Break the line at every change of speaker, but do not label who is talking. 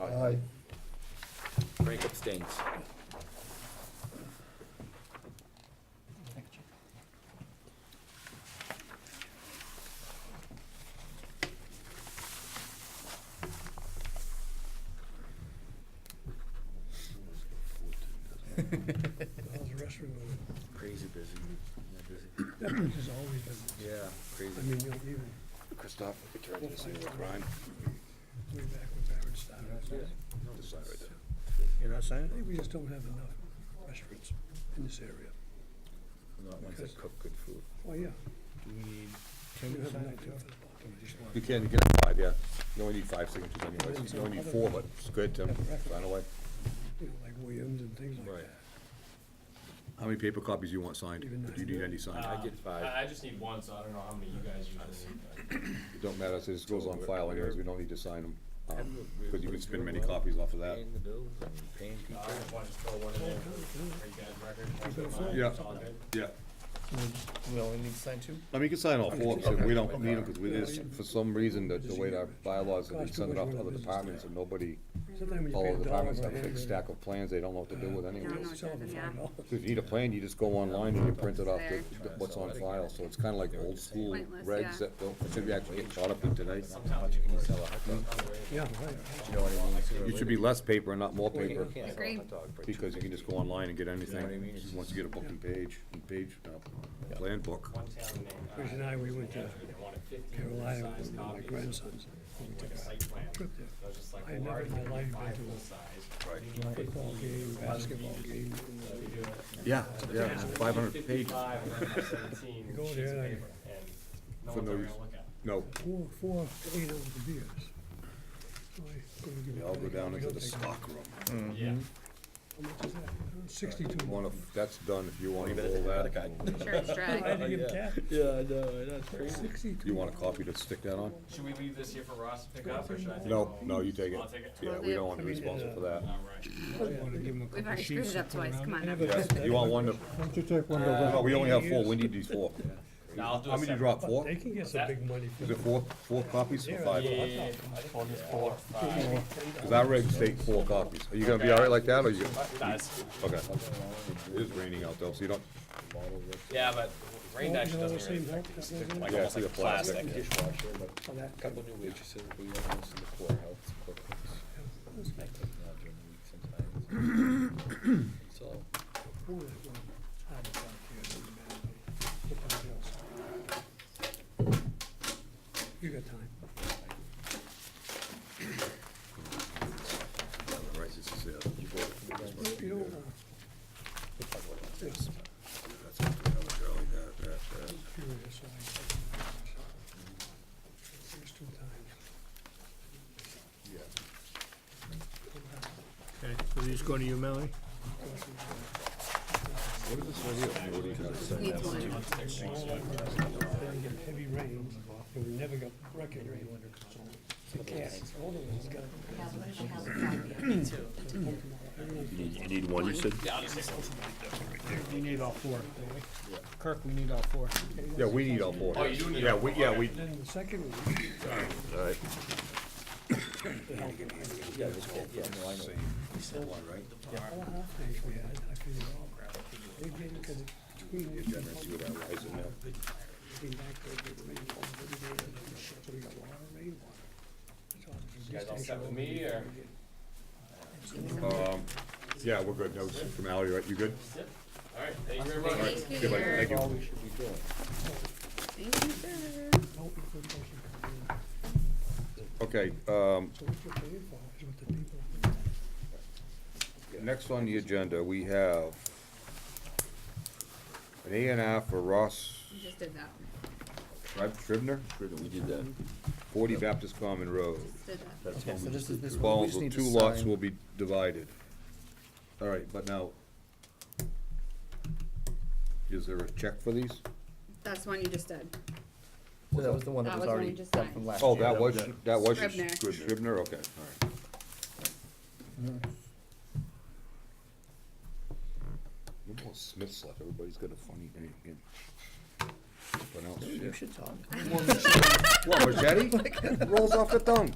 Aye.
Frank abstains.
How's the restroom?
Crazy busy. Yeah, busy.
That place has always been,
Yeah, crazy.
I mean, you know, even
Christoph, we turned into a scene of crime.
way back when Barrett started.
This side right there.
You're not
I
signing
think we just don't have enough restaurants in this area.
Not ones that cook good food.
Well, yeah,
it? Do we need
we
Tim to
have
sign
enough.
it
to-
too? Do we just want-
You can, you can have five, yeah. You only need five signatures anyways. You only need four, but it's good, Tim. Sign away.
You know, like Williams and things like
Right.
that.
How many paper copies do you want signed? If you need any signed,
I
Uh,
get five.
I, I just need one, so I don't know how many you guys usually need. but-
it don't matter. It just goes on file anyways. We don't need to sign them. Because you can spin
spend
many copies off of that.
Paying the bills and paying people.
Uh, I just want to throw one in there for for you guys' record. That's
better
fine.
phone.
Yeah.
It's all good.
Yeah.
We only need to sign two?
I mean, you can sign all four, because we don't need them, because we just, for some reason, the, the way our bylaws, are, they send it off to other departments and nobody,
Sometimes when you
all
pay
the
a dollar
departments
for a
have a big stack
handwritten.
of plans they don't know what to do with anyways.
Sell them for
Yeah.
five dollars.
If you need a plan, you just go online and you print it off the, what's on file, so it's kinda like old school
Pointless,
regs
yeah.
that don't, should be actually getting caught up in today.
Sometimes you can sell a hot dog.
Mm-hmm.
Yeah, right.
You know what I mean?
You should be less paper and not more paper,
You can't sell a
Agreed.
hot dog for
because you can just go online and get anything,
mean? It's
once you get a booking page, and page, uh, plan book.
One town named, uh,
Chris and I, we went to
they wanted fifteen
Carolina
size
with my
copies,
grandsons. We
like
took
a site plan.
a trip there.
So I was just like,
I
well,
never
already
in my life been
five
to a
full size.
Right.
You need
Football
15,
game, basketball game.
so we do it.
Yeah,
But
yeah,
then I
five
did
hundred pages.
55 and then I have 17
You go
sheets
there
of
and-
paper, and no
For
one's
no use.
ever gonna look at it.
No,
Four, four, to eight ounce beers. So I couldn't give
they
a
all go
penny.
down
We
into
don't
the
take-
stock room. Mm-hmm.
Yeah.
How much is that? Sixty-two.
Wanna, that's done, if you wanna
better take
roll
the credit
that,
card.
Sure, it's
I had
dry.
to give Cat
Yeah, I know, that's crazy.
sixty-two.
you want a copy to stick that on?
Should we leave this here for Ross to pick up, or should I take it
Mm-hmm. No,
home?
no, you take it.
I'll take it.
Yeah, we don't wanna be responsible for that.
All right.
We've already screwed it up twice, come on. now.
Yeah, You want one to,
Don't you take one
no, we only have four, we need these four.
No, I'll do
How
a
many do you
separate.
drop, four?
They can get some big money for
Is
it.
it four, four copies or five?
Yeah, yeah, yeah. I think it's four, five.
Cause our regs take four copies. Are you gonna be all right like that, or you, gonna-
Nice.
okay. It is raining out though, so you don't,
Yeah, but rain
Always
actually
all the
doesn't really
same
affect
help,
this,
doesn't it?
like
Yeah,
almost
see
like
the plastic.
plastic.
Dishwasher, but
for that.
couple new waitresses, we have this in the courthouse, courtrooms. I take them out during the week sometimes. So,
Four is one. How about that, kid? Doesn't matter. Look at the bills. You got time.
right, this is it.
You- You don't, uh, it's curious, so I. There's two times.
Okay, so these go to you, Melanie?
Needs one.
Then you get heavy rain, and we never got record rain. So The cat, one of them's got.
You need one, you said?
We need all four, don't we? Kirk, we need all four.
Yeah, we need all four.
Oh, you do need
Yeah,
all
we,
four,
yeah,
okay.
we,
Then the second one,
all right.
all half days we had, I figured, oh, crap. They did, because between,
See what that lies in there.
came back, they get rain all the day, and then so we got water, rainwater. So it's
You guys all
just-
set with me, or?
Um, yeah, we're good. That was just formality, right? You good?
Yep. All right, thank you very much.
Thank you,
Good, buddy.
sir.
Thank you.
Thank you, sir.
Don't be good, don't be kind.
Okay, um,
So what you're paying for is what the people.
Next on the agenda, we have an A and R for Ross
You just did that one.
Shrib- Scribner,
we did that.
forty Baptist Common Road.
Did that.
Okay, so this is, this one, we
Follows,
just need to
two lots
sign.
will be divided. All right, but now, is there a check for these?
That's one you just did.
So that was the one
That
that
was
was
the one
already
you just
done
signed.
from last year.
Oh, that was, that was
Scribner.
Scribner, okay, all right. Mm-hmm. Remember when Smith left, everybody's got a funny name. in- pronounced
You
shit.
should talk.
What, machete? Rolls off the tongue.